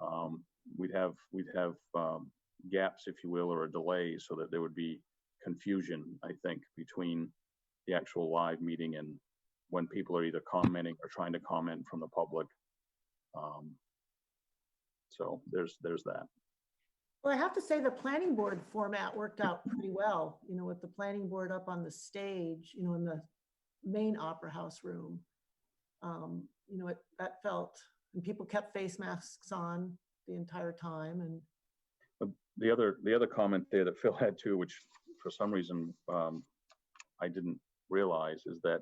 um, we'd have, we'd have, um, gaps, if you will, or a delay so that there would be confusion, I think, between the actual live meeting and when people are either commenting or trying to comment from the public. Um, so there's, there's that. Well, I have to say the planning board format worked out pretty well, you know, with the planning board up on the stage, you know, in the main opera house room. Um, you know, it, that felt, and people kept face masks on the entire time and, the other, the other comment there that Phil had too, which for some reason, um, I didn't realize is that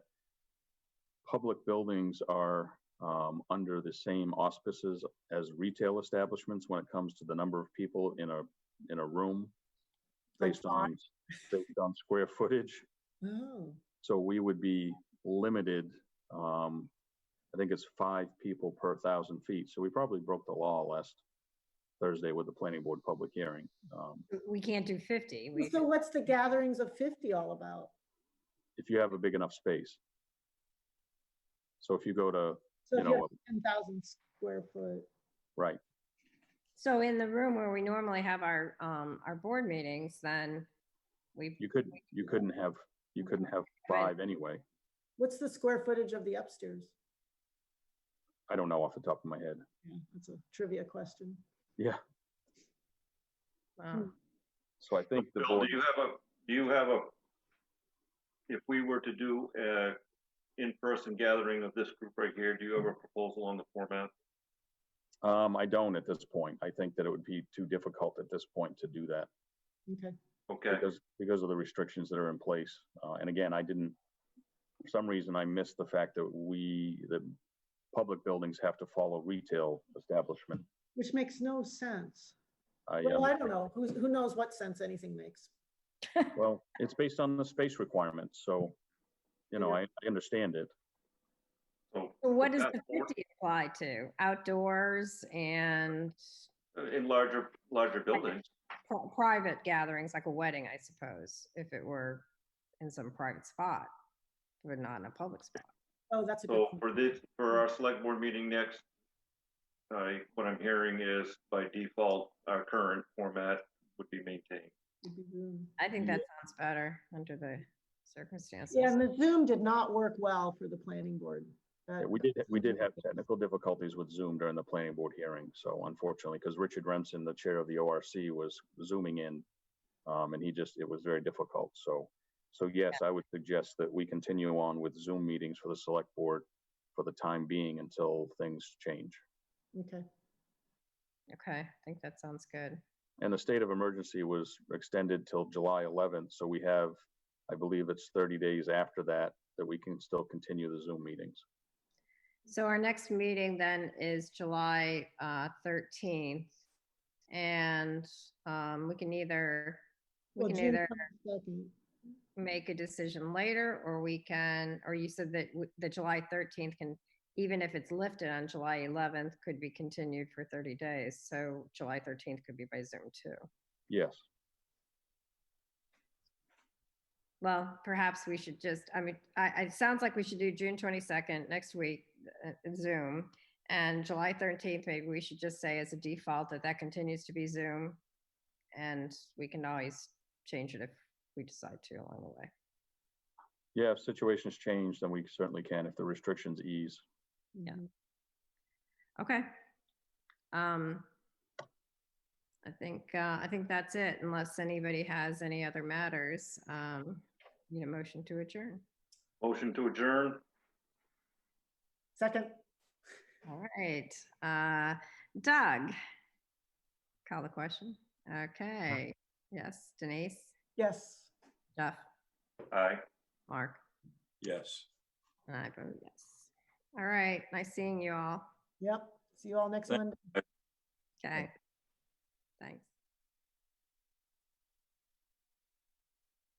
public buildings are, um, under the same auspices as retail establishments when it comes to the number of people in a, in a room based on, based on square footage. oh, So we would be limited, um, I think it's five people per thousand feet. So we probably broke the law last Thursday with the planning board public hearing. Um, We can't do 50. We- so what's the gatherings of fifty all about? if you have a big enough space. So if you go to, You So if you know have ten thousand square foot, right, So in the room where we normally have our, um, our board meetings, then we, you could, you couldn't have, you couldn't have five anyway. what's the square footage of the upstairs? I don't know off the top of my head. Yeah, That's a trivia question. Hmm. Yeah, wow. so I think the Bill, board, do you have a, do you have a, if we were to do a in-person gathering of this group right here, do you have a proposal on the format? um, I don't at this point. I think that it would be too difficult at this point to do that Okay. Okay, because, because of the restrictions that are in place. Uh, and again, I didn't, for some reason, I missed the fact that we, the public buildings have to follow retail establishment. Which makes no sense. I, Well, I um, don't know. Who's, who knows what sense anything makes? Well, it's based on the space requirement, so, you know, I, I understand it. so So What does That's the four. 50 apply to? Outdoors and uh, in larger, larger buildings, pri- private gatherings, like a wedding, I suppose, if it were in some private spot, but not in a public spot. Oh, that's a good. so point. for this, for our select board meeting next, I, what I'm hearing is by default, our current format would be maintained. Would be Zoom. I think Yeah. that sounds better under the circumstances. Yeah, and the Zoom did not work well for the planning board. Yeah, That- We did, we did have technical difficulties with Zoom during the planning board hearing, so unfortunately, because Richard Remsen, the chair of the ORC, was zooming in. Um, and he just, it was very difficult, so, so yes, I would suggest that we continue on with Zoom meetings for the select board for the time being until things change. Okay, Okay, I think that sounds good. And the state of emergency was extended till July 11th, so we have, I believe it's 30 days after that, that we can still continue the Zoom meetings. So our next meeting then is July uh, 13th. And um, we can either, Well, we can June either second. make a decision later, or we can, or you said that w- the July 13th can, even if it's lifted on July 11th, could be continued for 30 days. So July 13th could be by Zoom too. Yes, Well, perhaps we should just, I mean, I, I- it sounds like we should do June twenty-second next week, uh, Zoom. And July thirteenth, maybe we should just say as a default that that continues to be Zoom. And we can always change it if we decide to along the way. yeah, if situations change, then we certainly can, if the restrictions ease. Yeah. Okay. Um, I think, uh, I think that's it unless anybody has any other matters. Um, need a motion to adjourn. Motion to adjourn, Second, All right, uh, Doug. Call the question. Okay, yes, Denise, yes. Jeff, aye. Mark, Yes. and I vote yes. All right, nice seeing you all. Yep. See you all next Thank- Monday. Okay. Thanks.